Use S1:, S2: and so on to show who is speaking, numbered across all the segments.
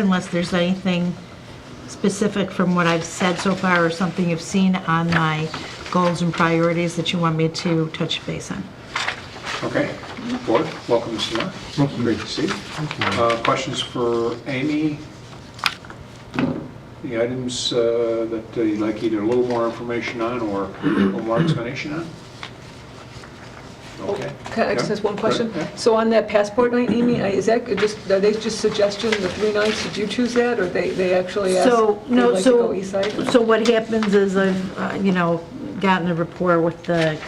S1: unless there's anything specific from what I've said so far or something you've seen on my goals and priorities that you want me to touch base on.
S2: Okay, board, welcome, Mr. Mayor. Great to see you. Uh, Questions for Amy? The items uh, that uh, you'd like either a little more information on or a little more explanation on? Okay.
S3: Oh, Can I just
S2: Yeah,
S3: ask one question?
S2: right, yeah.
S3: So on that passport night, Amy, I- is that just, are they just suggesting the three nights? Did you choose that, or they, they actually asked?
S1: So,
S3: they'd
S1: no,
S3: like to
S1: so,
S3: go east side?
S1: so what happens is I've, uh, you know, gotten a rapport with the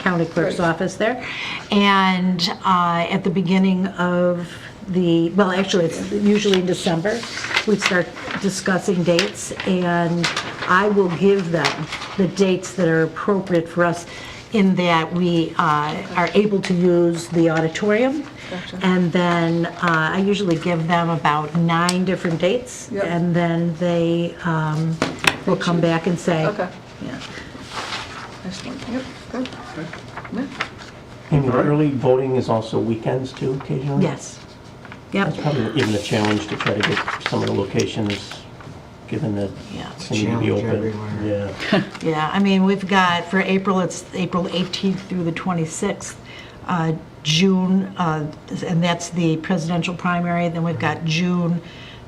S1: county clerk's
S3: Mm-hmm. Right.
S1: office there. And uh, at the beginning of the, well, actually, it's usually in December, we start discussing dates. And I will give them the dates that are appropriate for us in that we uh, are able to use the auditorium. And then uh, I usually give them about nine different dates.
S3: Yep.
S1: And then they um, will come back and say.
S3: Okay.
S1: Yeah.
S3: Excellent. Yep, good. Yeah.
S4: And early voting is also weekends too occasionally?
S1: Yes. Yep.
S4: That's probably even a challenge to try to get some of the locations, given that
S1: Yeah.
S4: they need to be
S5: Challenge
S4: open.
S5: everywhere.
S4: Yeah.
S1: Yeah, I mean, we've got, for April, it's April 18th through the 26th. Uh, June, uh, and that's the presidential primary, then we've got June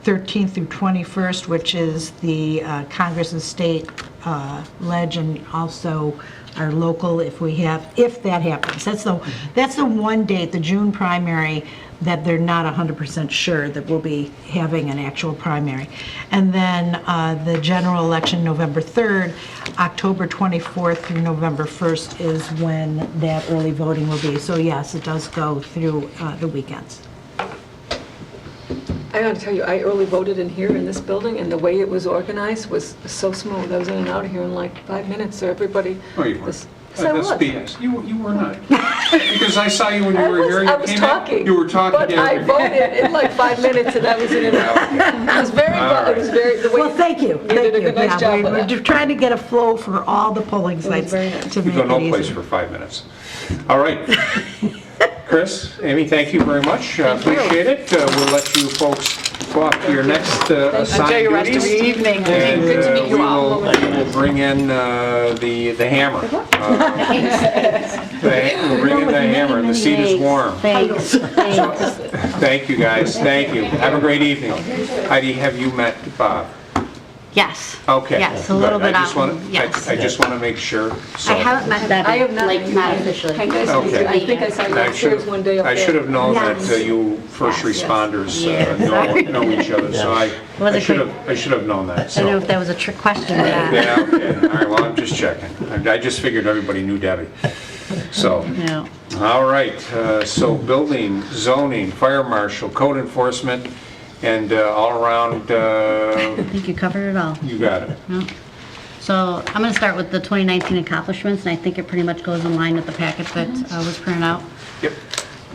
S1: 13th through 21st, which is the uh, Congress and State uh, Ledge, and also our local, if we have, if that happens. That's the, that's the one date, the June primary, that they're not 100% sure that we'll be having an actual primary. And then uh, the general election, November 3rd, October 24th through November 1st is when that early voting will be. So yes, it does go through uh, the weekends.
S3: I gotta tell you, I early voted in here in this building, and the way it was organized was so smooth. I was in and out of here in like five minutes, so everybody.
S2: Oh, you were.
S3: Yes, I was.
S2: That's BS. You, you were not. Because I saw you when you were here.
S3: I was,
S2: you
S3: I was
S2: came in,
S3: talking.
S2: You were talking.
S3: But
S2: yeah,
S3: I
S2: okay.
S3: voted in like five minutes, and I was in and out. It was very,
S2: All
S3: it was very, the way.
S1: Well, thank you,
S3: You
S1: thank
S3: did a
S1: you.
S3: good, nice
S1: Yeah,
S3: job
S1: we're-
S3: with
S1: We're
S3: that.
S1: just trying to get a flow for all the polling sites
S3: very
S1: to
S2: You
S1: make
S2: go no
S1: it
S2: place
S1: easy.
S2: for five minutes. All right. Chris, Amy, thank you very much. Uh, Appreciate it. Uh, We'll let you folks go off to your next uh,
S6: Enjoy
S2: assigned
S6: your rest of your
S2: duties.
S6: evening.
S2: And
S6: Good to
S2: uh,
S6: meet
S2: we
S6: you all.
S2: will, we'll bring in uh, the, the hammer. Uh, the- We'll bring in the hammer. The seat is warm.
S7: Thanks, thanks.
S2: Thank you, guys. Thank you. Have a great evening. Heidi, have you met Bob?
S7: Yes.
S2: Okay.
S7: Yes, a little
S2: Good.
S7: bit
S2: I just
S7: out,
S2: wanna- I-
S7: yes.
S2: I just want to make sure.
S7: I
S2: so-
S7: haven't met
S3: I have
S7: Debbie,
S3: not
S7: like,
S3: met
S7: not
S3: you. I
S7: officially.
S3: guys,
S2: Okay.
S3: I think I saw you
S2: I should
S3: upstairs
S2: have,
S3: one day up
S2: I
S3: there.
S2: should have known that uh,
S7: Yes.
S2: you first
S7: Yes, yes.
S2: responders uh,
S7: Yes.
S2: know know each other, so I-
S7: Was
S2: I
S7: it
S2: should
S7: great?
S2: have, I should have known that,
S7: I don't know
S2: so.
S7: if that was a trick question uh, or not.
S2: Yeah, okay, all right, well, I'm just checking. I I just figured everybody knew Debbie, so.
S7: No.
S2: All right, uh, so building, zoning, fire marshal, code enforcement, and uh, all around, uh,
S7: I think you covered it all.
S2: you got it.
S7: So I'm going to start with the 2019 accomplishments, and I think it pretty much goes in line with the packet that uh, was printed out.
S2: Yep.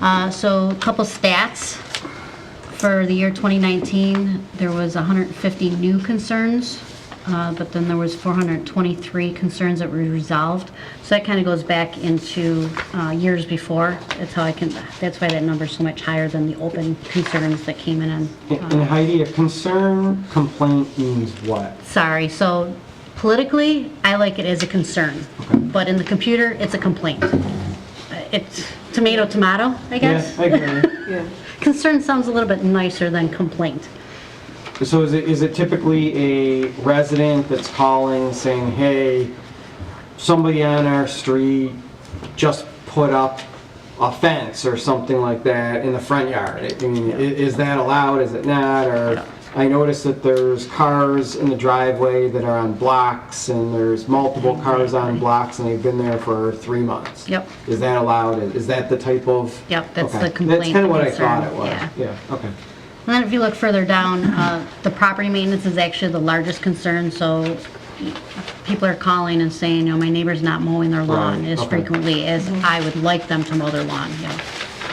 S7: Uh, So a couple stats. For the year 2019, there was 150 new concerns, uh, but then there was 423 concerns that were resolved. So that kind of goes back into uh, years before. That's how I can, that's why that number's so much higher than the open concerns that came in on
S5: And Heidi, a concern complaint means what?
S7: sorry, so politically, I like it as a concern, but in the computer, it's a complaint. It's tomato, tomato, I guess.
S5: Yeah, I agree.
S3: Yeah.
S7: Concern sounds a little bit nicer than complaint.
S5: So is it, is it typically a resident that's calling saying, hey, somebody on our street just put up a fence or something like that in the front yard? I mean, i- is that allowed, is it not, or? I noticed that there's cars in the driveway that are on blocks, and there's multiple cars on blocks, and they've been there for three months.
S7: Yep.
S5: Is that allowed, is that the type of?
S7: Yep, that's the
S5: Okay. That's
S7: complaint
S5: kind of what I
S7: concern,
S5: thought it was,
S7: yeah.
S5: yeah, okay.
S7: And then if you look further down, uh, the property maintenance is actually the largest concern, so people are calling and saying, you know, my neighbor's not mowing their lawn
S5: Right,
S7: as
S5: okay.
S7: frequently as I would like them to mow their lawn, you know.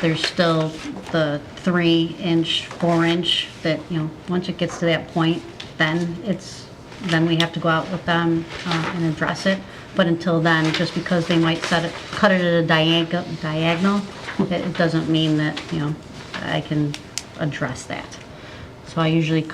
S7: There's still the three inch, four inch that, you know, once it gets to that point, then it's, then we have to go out with them uh, and address it. But until then, just because they might set it, cut it at a diagonal, diagonal, it it doesn't mean that, you know, I can address that. So I usually